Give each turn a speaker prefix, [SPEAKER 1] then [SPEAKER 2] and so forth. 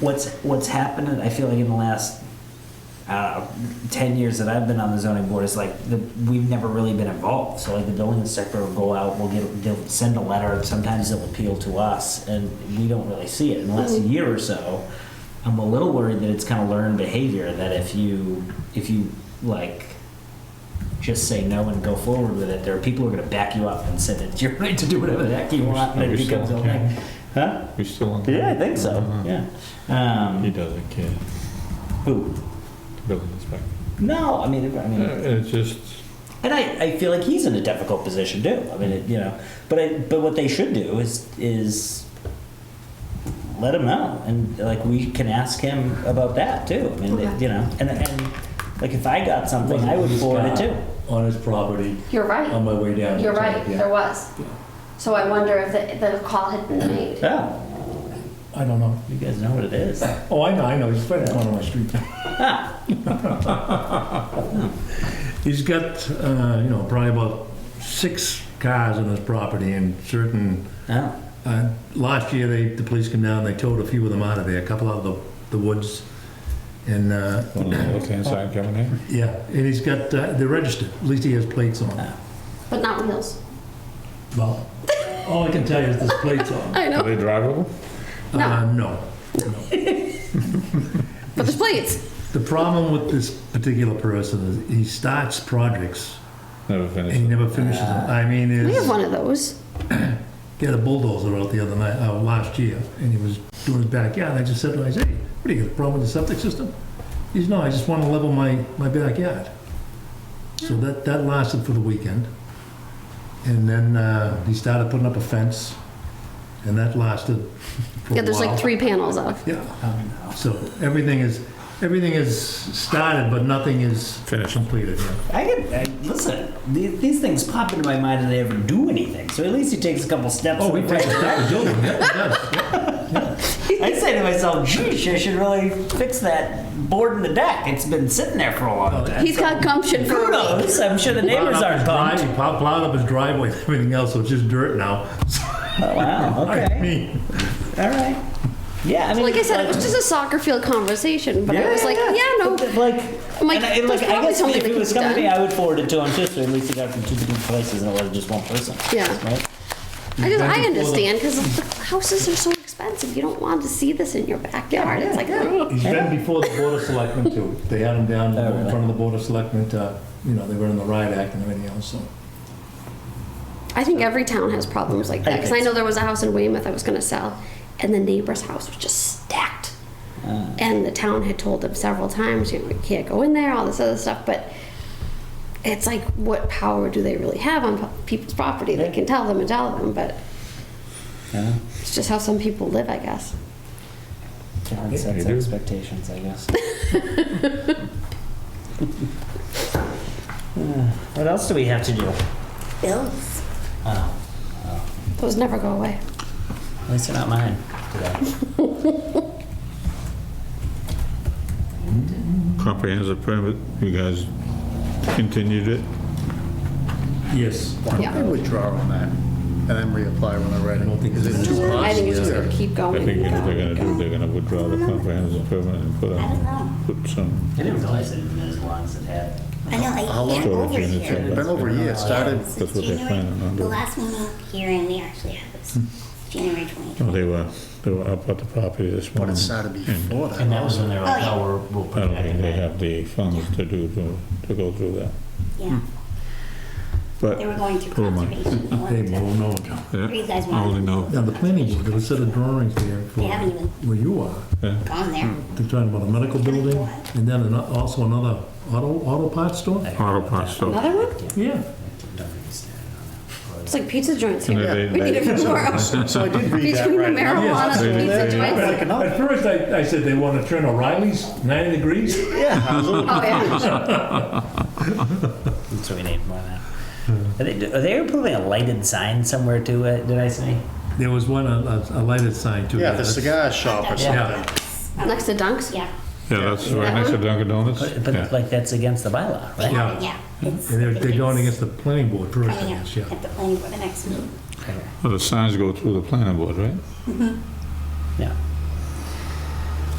[SPEAKER 1] what's what's happened i feel like in the last uh, 10 years that i've been on the zoning board is like the, we've never really been involved so like the building inspector will go out we'll get they'll send a letter sometimes they'll appeal to us and we don't really see it in the last year or so i'm a little worried that it's kind of learned behavior that if you if you like just say no and go forward with it there are people who are going to back you up and say that you're right to do whatever the heck you want and it
[SPEAKER 2] Yourself,
[SPEAKER 1] becomes a
[SPEAKER 2] yeah.
[SPEAKER 1] like huh
[SPEAKER 2] We still on?
[SPEAKER 1] yeah, I think so.
[SPEAKER 2] Uh-huh.
[SPEAKER 1] Yeah. Um,
[SPEAKER 2] He doesn't care,
[SPEAKER 1] Who?
[SPEAKER 2] the building inspector.
[SPEAKER 1] No, I mean, I mean,
[SPEAKER 2] Uh, It's just,
[SPEAKER 1] and I, I feel like he's in a difficult position too. I mean, it, you know, but I, but what they should do is is let him know, and like we can ask him about that too. I mean,
[SPEAKER 3] Okay.
[SPEAKER 1] you know, and and like if I got something, I would
[SPEAKER 4] This
[SPEAKER 1] forward it
[SPEAKER 4] guy
[SPEAKER 1] too.
[SPEAKER 4] On his property
[SPEAKER 3] You're
[SPEAKER 4] on
[SPEAKER 3] right.
[SPEAKER 4] my way down.
[SPEAKER 3] You're
[SPEAKER 4] to-
[SPEAKER 3] right.
[SPEAKER 4] yeah.
[SPEAKER 3] There was.
[SPEAKER 4] Yeah.
[SPEAKER 3] So I wonder if the, the call had been made.
[SPEAKER 1] Yeah,
[SPEAKER 4] I don't know.
[SPEAKER 1] you guys know what it is.
[SPEAKER 4] Oh, I know, I know. He's right down on my street. He's got, uh, you know, probably about six cars on his property and certain,
[SPEAKER 1] Yeah.
[SPEAKER 4] uh, last year, they, the police came down, they towed a few of them out of there, a couple out of the, the woods. And, uh,
[SPEAKER 2] on the left-hand side coming in.
[SPEAKER 4] yeah, and he's got, uh, they're registered, at least he has plates on.
[SPEAKER 3] But not wheels.
[SPEAKER 4] Well, all I can tell you is there's plates on.
[SPEAKER 3] I
[SPEAKER 2] Are they drivable?
[SPEAKER 3] No.
[SPEAKER 4] Uh, no.
[SPEAKER 3] But there's plates.
[SPEAKER 4] The problem with this particular person is he starts projects
[SPEAKER 2] Never
[SPEAKER 4] and he
[SPEAKER 2] finished.
[SPEAKER 4] never finishes them. I mean,
[SPEAKER 3] We have
[SPEAKER 4] is,
[SPEAKER 3] one of those.
[SPEAKER 4] he had a bulldozer out the other night, uh, last year, and he was doing his backyard. And I just said to him, I said, hey, what do you got, a problem with the septic system? He says, no, I just want to level my, my backyard. So that, that lasted for the weekend. And then uh, he started putting up a fence, and that lasted for
[SPEAKER 3] Yeah,
[SPEAKER 4] a
[SPEAKER 3] there's like
[SPEAKER 4] while.
[SPEAKER 3] three panels of.
[SPEAKER 4] Yeah.
[SPEAKER 1] Oh,
[SPEAKER 4] Um, So everything is, everything is started, but nothing is
[SPEAKER 2] Finished.
[SPEAKER 4] completed. yeah.
[SPEAKER 1] I can I, listen. These, these things pop into my mind, and they ever do anything. So at least he takes a couple steps. in
[SPEAKER 4] Oh, we
[SPEAKER 1] the
[SPEAKER 4] take
[SPEAKER 1] right
[SPEAKER 4] a step of doing it, yes.
[SPEAKER 1] I say to myself, geez, I should really fix that board in the deck. It's been sitting there for a long time.
[SPEAKER 3] He's got gumption for a week.
[SPEAKER 1] Kudos. I'm sure the neighbors aren't
[SPEAKER 4] Plowed up his
[SPEAKER 1] pumped.
[SPEAKER 4] drive- plow- Plowed up his driveway and everything else, so it's just dirt now.
[SPEAKER 1] Oh, wow.
[SPEAKER 4] I
[SPEAKER 1] Okay.
[SPEAKER 4] mean,
[SPEAKER 1] All right. Yeah. I mean,
[SPEAKER 3] Like I said, it was just a soccer field conversation, but it was like, yeah, no.
[SPEAKER 1] But the- Like,
[SPEAKER 3] I'm like,
[SPEAKER 1] and I, and
[SPEAKER 3] there's
[SPEAKER 1] like, I
[SPEAKER 3] probably
[SPEAKER 1] guess
[SPEAKER 3] something
[SPEAKER 1] if
[SPEAKER 3] that
[SPEAKER 1] it
[SPEAKER 3] can
[SPEAKER 1] was
[SPEAKER 3] be
[SPEAKER 1] coming to me,
[SPEAKER 3] done.
[SPEAKER 1] I would forward it to him too, so at least it got from two different places and it wasn't just one person.
[SPEAKER 3] Yeah.
[SPEAKER 1] Right?
[SPEAKER 3] I just, I
[SPEAKER 4] Back and forth.
[SPEAKER 3] understand because the houses are so expensive. You don't want to see this in your backyard. It's like, oh, ugh.
[SPEAKER 4] He's been before the Board of Selectmen too. They had him down
[SPEAKER 1] Oh,
[SPEAKER 4] in
[SPEAKER 1] really?
[SPEAKER 4] front of the Board of Selectmen, to, you know, they were in the riot act and everything else, so.
[SPEAKER 3] I think every town has problems like that. Because I
[SPEAKER 1] think
[SPEAKER 3] know there was a house in Weymouth I was going to sell, and the neighbor's house was just stacked. And the town had told them several times, you know, you can't go in there, all this other stuff. But it's like, what power do they really have on people's property? They can tell them and tell them, but
[SPEAKER 1] Yeah.
[SPEAKER 3] it's just how some people live, I guess.
[SPEAKER 1] John
[SPEAKER 2] Yeah,
[SPEAKER 1] sets
[SPEAKER 2] you do.
[SPEAKER 1] expectations, I guess. what else do we have to do?
[SPEAKER 3] Bills.
[SPEAKER 1] Oh,
[SPEAKER 3] Those never go away.
[SPEAKER 1] at least they're not mine today.
[SPEAKER 2] Comprehensive permit, you guys continued it?
[SPEAKER 4] Yes.
[SPEAKER 5] I
[SPEAKER 3] Yeah.
[SPEAKER 5] withdraw on that and then reapply when I'm ready.
[SPEAKER 4] don't think
[SPEAKER 5] Is it
[SPEAKER 4] it's-
[SPEAKER 5] too
[SPEAKER 3] I think it's just
[SPEAKER 5] costly?
[SPEAKER 3] going to keep
[SPEAKER 2] I
[SPEAKER 3] going.
[SPEAKER 2] think you know what
[SPEAKER 3] and
[SPEAKER 2] they're gonna
[SPEAKER 3] going.
[SPEAKER 2] do, they're gonna withdraw the comprehensive permit and put on, put some
[SPEAKER 1] I didn't realize it had been as long as it had.
[SPEAKER 6] I know,
[SPEAKER 5] How
[SPEAKER 6] I
[SPEAKER 5] long
[SPEAKER 6] can't
[SPEAKER 2] storage
[SPEAKER 6] over
[SPEAKER 2] units.
[SPEAKER 6] here.
[SPEAKER 2] in
[SPEAKER 5] Been
[SPEAKER 2] there.
[SPEAKER 5] over a year, it started,
[SPEAKER 2] That's what they're
[SPEAKER 6] January-
[SPEAKER 2] planning on
[SPEAKER 6] The
[SPEAKER 2] doing.
[SPEAKER 6] last meeting here and we actually had was
[SPEAKER 4] Hmm.
[SPEAKER 6] January 2020.
[SPEAKER 2] No,
[SPEAKER 4] Oh.
[SPEAKER 2] oh, They were, they were up at the property this
[SPEAKER 5] but
[SPEAKER 2] morning.
[SPEAKER 5] it started before
[SPEAKER 1] And that
[SPEAKER 5] that.
[SPEAKER 1] was when they were like,
[SPEAKER 6] Oh, yeah.
[SPEAKER 1] oh, we're, we'll
[SPEAKER 2] I
[SPEAKER 1] put it
[SPEAKER 2] don't
[SPEAKER 1] back
[SPEAKER 2] think
[SPEAKER 1] in
[SPEAKER 2] they
[SPEAKER 1] there.
[SPEAKER 2] have the funds to do, to, to go through that,
[SPEAKER 6] Yeah,
[SPEAKER 2] but.
[SPEAKER 6] they were going through
[SPEAKER 2] Oh, my.
[SPEAKER 6] conservation. They
[SPEAKER 4] They
[SPEAKER 6] wanted to-
[SPEAKER 4] won't know.
[SPEAKER 2] Yeah,
[SPEAKER 6] You guys
[SPEAKER 2] I only
[SPEAKER 6] want-
[SPEAKER 2] know,
[SPEAKER 4] Now, the planning board, there was a set of drawings there for
[SPEAKER 6] They haven't even-
[SPEAKER 4] where you are.
[SPEAKER 2] yeah.
[SPEAKER 6] Gone there.
[SPEAKER 4] They're talking about a medical building and then an- also another auto, auto parts store?
[SPEAKER 2] Auto parts store.
[SPEAKER 3] Another one?
[SPEAKER 4] Yeah.
[SPEAKER 3] It's like pizza joints
[SPEAKER 2] And
[SPEAKER 3] here.
[SPEAKER 2] they-
[SPEAKER 3] We need
[SPEAKER 2] they-
[SPEAKER 3] it tomorrow.
[SPEAKER 5] So I did read that
[SPEAKER 3] Between the
[SPEAKER 5] right. now.
[SPEAKER 3] marijuana,
[SPEAKER 4] Yes.
[SPEAKER 3] pizza
[SPEAKER 2] They-
[SPEAKER 3] joints.
[SPEAKER 5] Like another-
[SPEAKER 4] At first, I, I said they want to turn O'Reilly's 90 degrees.
[SPEAKER 3] Oh, yeah.
[SPEAKER 1] That's what we need more than that. Are they, do- are they putting a lighted sign somewhere too, uh, did I say?
[SPEAKER 4] There was one, a, a a lighted sign too.
[SPEAKER 5] Yeah, the cigar shop or
[SPEAKER 4] Yeah.
[SPEAKER 5] something.
[SPEAKER 3] Next to Dunk's?
[SPEAKER 6] Yeah,
[SPEAKER 2] Yeah, that's right
[SPEAKER 3] That
[SPEAKER 2] next to
[SPEAKER 3] one?
[SPEAKER 2] Dunkin' Donuts.
[SPEAKER 1] But, but
[SPEAKER 2] Yeah.
[SPEAKER 1] like, that's against the bylaw, right?
[SPEAKER 4] Yeah.
[SPEAKER 6] yeah. it's-
[SPEAKER 4] And they're, they're going
[SPEAKER 6] it's
[SPEAKER 4] against the planning board first, I
[SPEAKER 6] Coming up
[SPEAKER 4] guess, yeah.
[SPEAKER 6] at the planning board the next meeting.
[SPEAKER 2] Well, the signs go through the planning board, right?
[SPEAKER 1] Yeah.